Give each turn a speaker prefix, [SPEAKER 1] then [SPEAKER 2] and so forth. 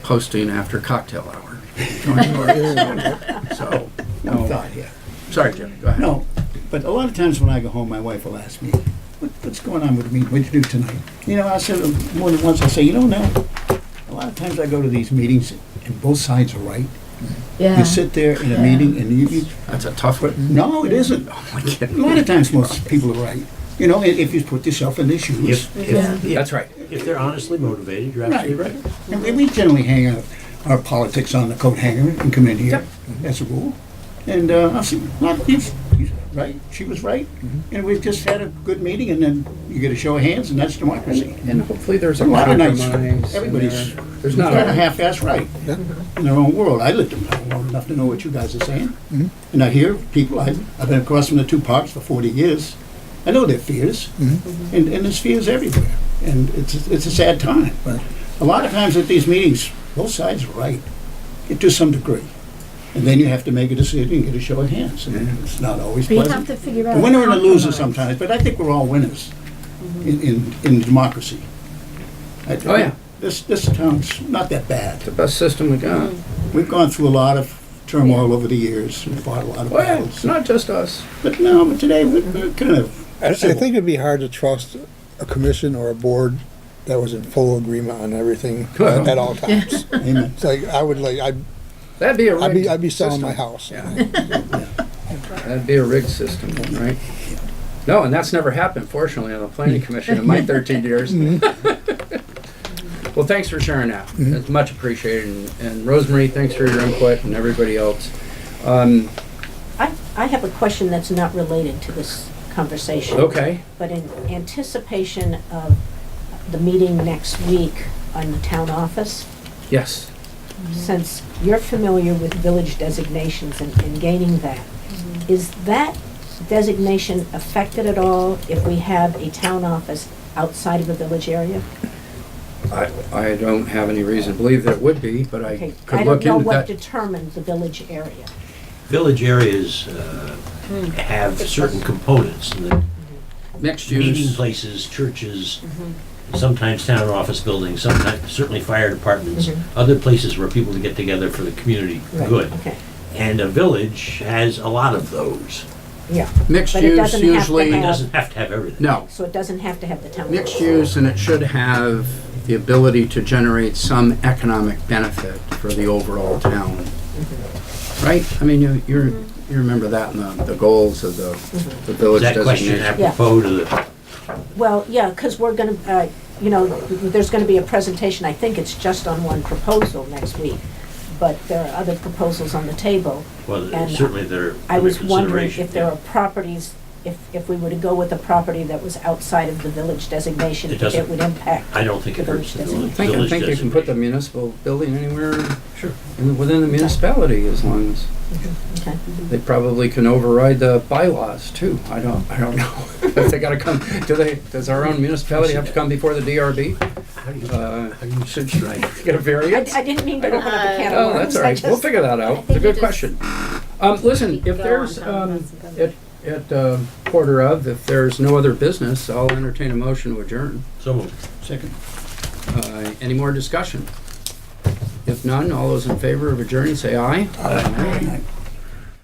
[SPEAKER 1] posting after cocktail hour. So,
[SPEAKER 2] One
[SPEAKER 1] no,
[SPEAKER 2] thought here.
[SPEAKER 1] sorry, Jim, go ahead.
[SPEAKER 2] No, but a lot of times when I go home, my wife will ask me, what, what's going on with me? What'd you do tonight? You know, I said, uh, more than once, I'll say, you don't know. A lot of times I go to these meetings and both sides are right.
[SPEAKER 3] Yeah.
[SPEAKER 2] You sit there in a
[SPEAKER 3] Yeah.
[SPEAKER 2] meeting and you, you,
[SPEAKER 1] That's a tough
[SPEAKER 2] but
[SPEAKER 1] one. Oh,
[SPEAKER 2] no, it isn't. A
[SPEAKER 1] My kid.
[SPEAKER 2] lot of times most people are right. You know, i- if you put yourself in their shoes.
[SPEAKER 4] If,
[SPEAKER 3] Yeah.
[SPEAKER 4] if,
[SPEAKER 1] That's right.
[SPEAKER 4] if they're honestly motivated, you're
[SPEAKER 2] Right,
[SPEAKER 4] absolutely
[SPEAKER 2] right.
[SPEAKER 4] right.
[SPEAKER 2] And we- we generally hang out our politics on the coat hanger and come in here, as a rule. And uh, I said, well, he's, he's right, she was right. And we've just had a good meeting and then you get a show of hands and that's democracy.
[SPEAKER 5] And hopefully there's a
[SPEAKER 2] A lot of nights,
[SPEAKER 5] compromise. in
[SPEAKER 2] everybody's-
[SPEAKER 5] there. There's
[SPEAKER 2] Not
[SPEAKER 5] not
[SPEAKER 2] a
[SPEAKER 5] a,
[SPEAKER 2] half-ass right in their own world. I lived in town long enough to know what you guys are saying.
[SPEAKER 5] Mm-hmm.
[SPEAKER 2] And I hear people, I- I've been across from the two parks for 40 years. I know their fears,
[SPEAKER 5] Mm-hmm.
[SPEAKER 2] and, and there's fears everywhere. And it's, it's a sad time. But a lot of times at these meetings, both sides are right, eh, to some degree. And then you have to make a decision and get a show of hands. And
[SPEAKER 5] Mm-hmm.
[SPEAKER 2] it's not always
[SPEAKER 3] But you have
[SPEAKER 2] pleasant.
[SPEAKER 3] to figure
[SPEAKER 2] A
[SPEAKER 3] out.
[SPEAKER 2] winner and a loser
[SPEAKER 3] compromise. Mm-hmm.
[SPEAKER 2] sometimes, but I think we're all winners in, in, in democracy. I-
[SPEAKER 5] Oh, yeah.
[SPEAKER 2] This, this town's not that bad.
[SPEAKER 5] the best system we got.
[SPEAKER 2] We've gone through a lot of turmoil over the years, and fought a lot of
[SPEAKER 5] Well, it's
[SPEAKER 2] battles.
[SPEAKER 5] not just us.
[SPEAKER 2] But no, but today, we're we're kind of,
[SPEAKER 6] I, I
[SPEAKER 2] Civil.
[SPEAKER 6] think it'd be hard to trust a commission or a board that was in full agreement on everything
[SPEAKER 5] Well.
[SPEAKER 6] at all times.
[SPEAKER 2] amen.
[SPEAKER 6] It's like, I would like, I'd,
[SPEAKER 5] That'd be a rigged
[SPEAKER 6] I'd be, I'd be selling
[SPEAKER 5] system.
[SPEAKER 6] my house.
[SPEAKER 5] Yeah. That'd be a rigged system, right? No, and that's never happened, fortunately, on the planning commission in my 13 years. Well, thanks for sharing that. It's much appreciated. And- And Rosemary, thanks for your input and everybody else. Um,
[SPEAKER 7] I, I have a question that's not related to this conversation.
[SPEAKER 5] Okay,
[SPEAKER 7] But in anticipation of the meeting next week on the town office,
[SPEAKER 5] yes.
[SPEAKER 7] since you're familiar with village designations and, and gaining that, is that designation affected at all if we have a town office outside of a village area?
[SPEAKER 5] I, I don't have any reason to believe that it would be, but I
[SPEAKER 7] Okay,
[SPEAKER 5] could look
[SPEAKER 7] I don't
[SPEAKER 5] into
[SPEAKER 7] know
[SPEAKER 5] that.
[SPEAKER 7] what determined the village area.
[SPEAKER 4] Village areas uh,
[SPEAKER 7] Hmm.
[SPEAKER 4] have certain components, and the
[SPEAKER 5] Mixed
[SPEAKER 4] meeting
[SPEAKER 5] use,
[SPEAKER 4] places, churches,
[SPEAKER 7] Mm-hmm.
[SPEAKER 4] sometimes town or office buildings, sometimes, certainly fire departments, other places where people get together for the community
[SPEAKER 7] Mm-hmm. Right,
[SPEAKER 4] good.
[SPEAKER 7] Okay,
[SPEAKER 4] And a village has a lot of those.
[SPEAKER 7] yeah,
[SPEAKER 5] mixed
[SPEAKER 7] But it
[SPEAKER 5] use
[SPEAKER 7] doesn't have to
[SPEAKER 5] usually,
[SPEAKER 4] It
[SPEAKER 7] have-
[SPEAKER 4] doesn't have to have everything.
[SPEAKER 5] no.
[SPEAKER 7] so it doesn't have to have the town.
[SPEAKER 5] Mixed
[SPEAKER 7] office.
[SPEAKER 5] use, and it should have the ability to generate some economic benefit for the overall town.
[SPEAKER 7] Mm-hmm.
[SPEAKER 5] Right? I mean, you, you re- you remember that in the, the goals of the,
[SPEAKER 7] Mm-hmm.
[SPEAKER 5] the
[SPEAKER 4] Is
[SPEAKER 5] village
[SPEAKER 4] that question
[SPEAKER 5] designation.
[SPEAKER 4] apropos to the,
[SPEAKER 7] Well, yeah, because we're going to, you know, there's going to be a presentation, I think it's just on one proposal next week, but there are other proposals on the table.
[SPEAKER 4] well,
[SPEAKER 7] And uh,
[SPEAKER 4] certainly they're
[SPEAKER 7] I
[SPEAKER 4] under
[SPEAKER 7] was wondering
[SPEAKER 4] consideration.
[SPEAKER 7] if there are properties, if, if we were to go with a property that was outside of the village designation,
[SPEAKER 4] It doesn't-
[SPEAKER 7] it would impact.
[SPEAKER 4] I don't think it hurts the
[SPEAKER 5] I
[SPEAKER 4] village.
[SPEAKER 5] think, I
[SPEAKER 4] village
[SPEAKER 5] think you can put the
[SPEAKER 4] designation.
[SPEAKER 5] municipal building anywhere in, the- within the municipality as long as,
[SPEAKER 7] Okay.
[SPEAKER 5] they probably can override the bylaws too. I don't, I don't know. If they gotta come, do they, does our own municipality have to come before the DRB?
[SPEAKER 4] How do you-
[SPEAKER 5] Uh,
[SPEAKER 4] how do you subscribe?
[SPEAKER 5] Get a
[SPEAKER 7] I,
[SPEAKER 5] variance?
[SPEAKER 7] I didn't mean to open up a can of
[SPEAKER 5] Oh,
[SPEAKER 7] worms.
[SPEAKER 5] that's
[SPEAKER 7] I
[SPEAKER 5] all right. We'll
[SPEAKER 7] just-
[SPEAKER 5] figure that out. It's a
[SPEAKER 3] Uh, think you
[SPEAKER 5] good
[SPEAKER 3] just-
[SPEAKER 5] question. Um, listen, if
[SPEAKER 3] Go
[SPEAKER 5] there's,
[SPEAKER 3] on, Tom,
[SPEAKER 5] um,
[SPEAKER 3] that's good.
[SPEAKER 5] at, at uh, quarter of, if there's no other business, I'll entertain a motion to adjourn.
[SPEAKER 4] So moved.
[SPEAKER 2] Second.
[SPEAKER 5] Uh, any more discussion? If none, all those in favor of adjourning, say aye.
[SPEAKER 2] Aye.